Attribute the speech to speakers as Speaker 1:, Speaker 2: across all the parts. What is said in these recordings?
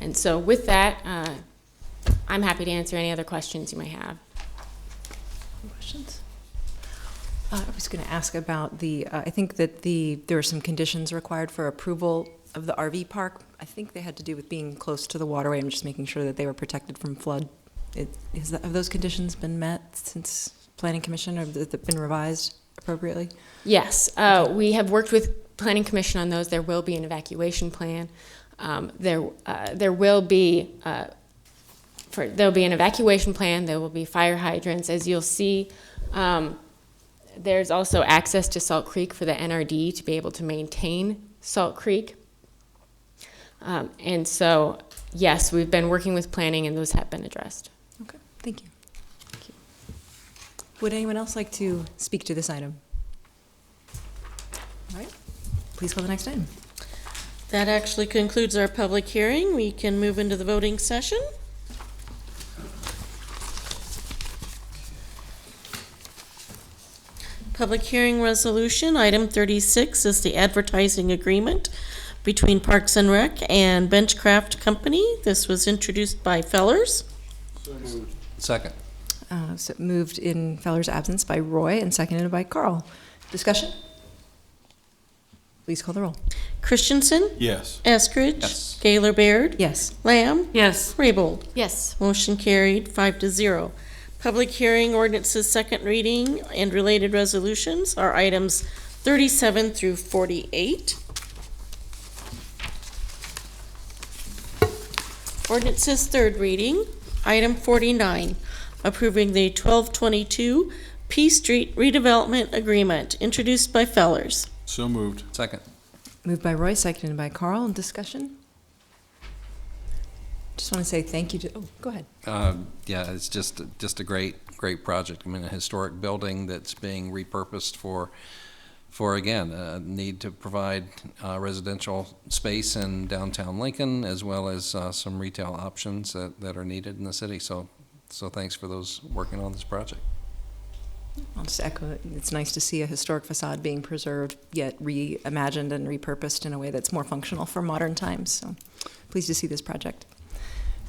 Speaker 1: And so with that, uh, I'm happy to answer any other questions you may have.
Speaker 2: Questions? Uh, I was going to ask about the, uh, I think that the, there were some conditions required for approval of the RV park. I think they had to do with being close to the waterway. I'm just making sure that they were protected from flood. It- Is that, have those conditions been met since Planning Commission, or have they been revised appropriately?
Speaker 1: Yes, uh, we have worked with Planning Commission on those. There will be an evacuation plan. Um, there, uh, there will be, uh, for, there'll be an evacuation plan. There will be fire hydrants. As you'll see, um, there's also access to Salt Creek for the NRD to be able to maintain Salt Creek. Um, and so, yes, we've been working with planning and those have been addressed.
Speaker 2: Okay, thank you. Thank you. Would anyone else like to speak to this item? All right, please call the next item.
Speaker 3: That actually concludes our public hearing. We can move into the voting session. Public hearing resolution, item thirty-six is the advertising agreement between Parks and Rec and Benchcraft Company. This was introduced by Fellers.
Speaker 4: Second.
Speaker 2: Uh, So moved in Feller's absence by Roy and seconded by Carl. Discussion? Please call the roll.
Speaker 3: Christensen,
Speaker 5: Yes.
Speaker 3: Eskridge.
Speaker 4: Yes.
Speaker 3: Gaylor Baird.
Speaker 2: Yes.
Speaker 3: Lamb.
Speaker 6: Yes,
Speaker 3: Raybold.
Speaker 1: Yes.
Speaker 3: Motion carried, five to zero. Public hearing ordinances, second reading, and related resolutions are items thirty-seven through forty-eight. Ordinances, third reading, item forty-nine, approving the twelve twenty-two P Street redevelopment agreement, introduced by Fellers.
Speaker 5: So moved.
Speaker 4: Second.
Speaker 2: Moved by Roy, seconded by Carl. Discussion? Just want to say thank you to, oh, go ahead.
Speaker 4: Um, Yeah, it's just, just a great, great project. I mean, a historic building that's being repurposed for, for again, a need to provide uh, residential space in downtown Lincoln as well as uh, some retail options that, that are needed in the city. So, so thanks for those working on this project.
Speaker 2: I'll just echo it. It's nice to see a historic facade being preserved, yet reimagined and repurposed in a way that's more functional for modern times. So pleased to see this project.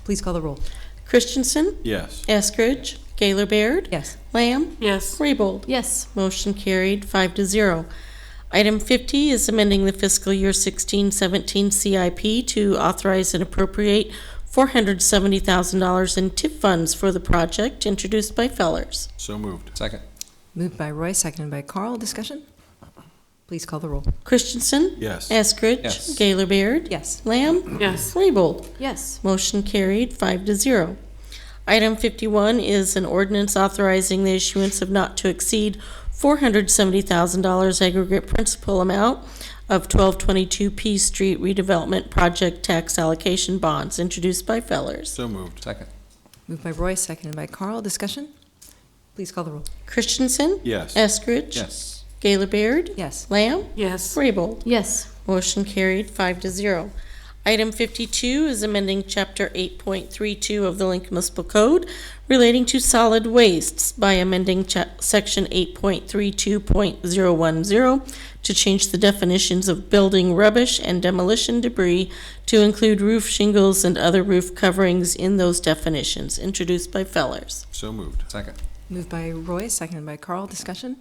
Speaker 2: Please call the roll.
Speaker 3: Christensen,
Speaker 5: Yes.
Speaker 3: Eskridge, Gaylor Baird,
Speaker 2: Yes.
Speaker 3: Lamb,
Speaker 6: yes,
Speaker 3: Raybold.
Speaker 1: Yes.
Speaker 3: Motion carried, five to zero. Item fifty is amending the fiscal year sixteen seventeen CIP to authorize and appropriate four hundred seventy thousand dollars in TIP funds for the project, introduced by Fellers.
Speaker 5: So moved.
Speaker 4: Second.
Speaker 2: Moved by Roy, seconded by Carl. Discussion? Please call the roll.
Speaker 3: Christensen.
Speaker 5: Yes.
Speaker 3: Eskridge.
Speaker 4: Yes.
Speaker 3: Gaylor Baird.
Speaker 2: Yes.
Speaker 3: Lamb.
Speaker 6: yes,
Speaker 3: Raybold.
Speaker 1: Yes.
Speaker 3: Motion carried, five to zero. Item fifty-one is an ordinance authorizing the issuance of not to exceed four hundred seventy thousand dollars aggregate principal amount of twelve twenty-two P Street redevelopment project tax allocation bonds, introduced by Fellers.
Speaker 5: So moved.
Speaker 4: Second.
Speaker 2: Moved by Roy, seconded by Carl. Discussion? Please call the roll.
Speaker 3: Christensen.
Speaker 5: Yes.
Speaker 3: Eskridge.
Speaker 4: Yes.
Speaker 3: Gaylor Baird.
Speaker 2: Yes.
Speaker 3: Lamb.
Speaker 6: yes,
Speaker 3: Raybold.
Speaker 1: Yes.
Speaker 3: Motion carried, five to zero. Item fifty-two is amending chapter eight point three two of the Lincoln Municipal Code relating to solid wastes by amending cha- section eight point three two point zero one zero to change the definitions of building rubbish and demolition debris to include roof shingles and other roof coverings in those definitions, introduced by Fellers.
Speaker 5: So moved.
Speaker 4: Second.
Speaker 2: Moved by Roy, seconded by Carl. Discussion?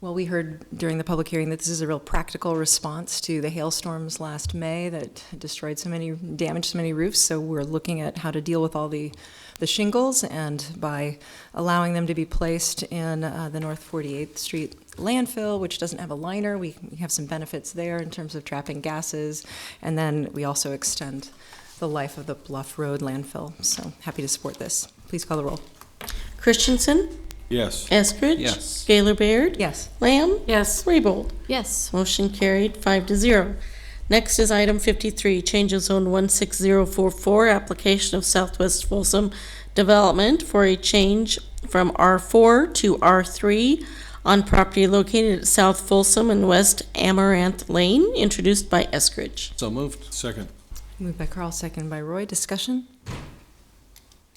Speaker 2: Well, we heard during the public hearing that this is a real practical response to the hailstorms last May that destroyed so many, damaged so many roofs. So we're looking at how to deal with all the, the shingles and by allowing them to be placed in uh, the North 48th Street landfill, which doesn't have a liner, we we have some benefits there in terms of trapping gases. And then we also extend the life of the Bluff Road landfill. So happy to support this. Please call the roll.
Speaker 3: Christensen,
Speaker 5: Yes.
Speaker 3: Eskridge.
Speaker 4: Yes.
Speaker 3: Gaylor Baird.
Speaker 2: Yes.
Speaker 3: Lamb.
Speaker 6: yes,
Speaker 3: Raybold.
Speaker 1: Yes.
Speaker 3: Motion carried, five to zero. Next is item fifty-three, change of zone one six zero four four, application of Southwest Folsom Development for a change from R four to R three on property located at South Folsom and West Amaranth Lane, introduced by Eskridge.
Speaker 4: So moved.
Speaker 5: Second.
Speaker 2: Moved by Carl, seconded by Roy. Discussion?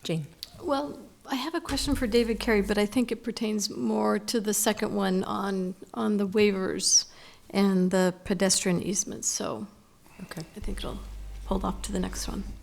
Speaker 2: Jane?
Speaker 7: Well, I have a question for David Carey, but I think it pertains more to the second one on, on the waivers and the pedestrian easements, so
Speaker 2: Okay.
Speaker 7: I think it'll pulled off to the next one.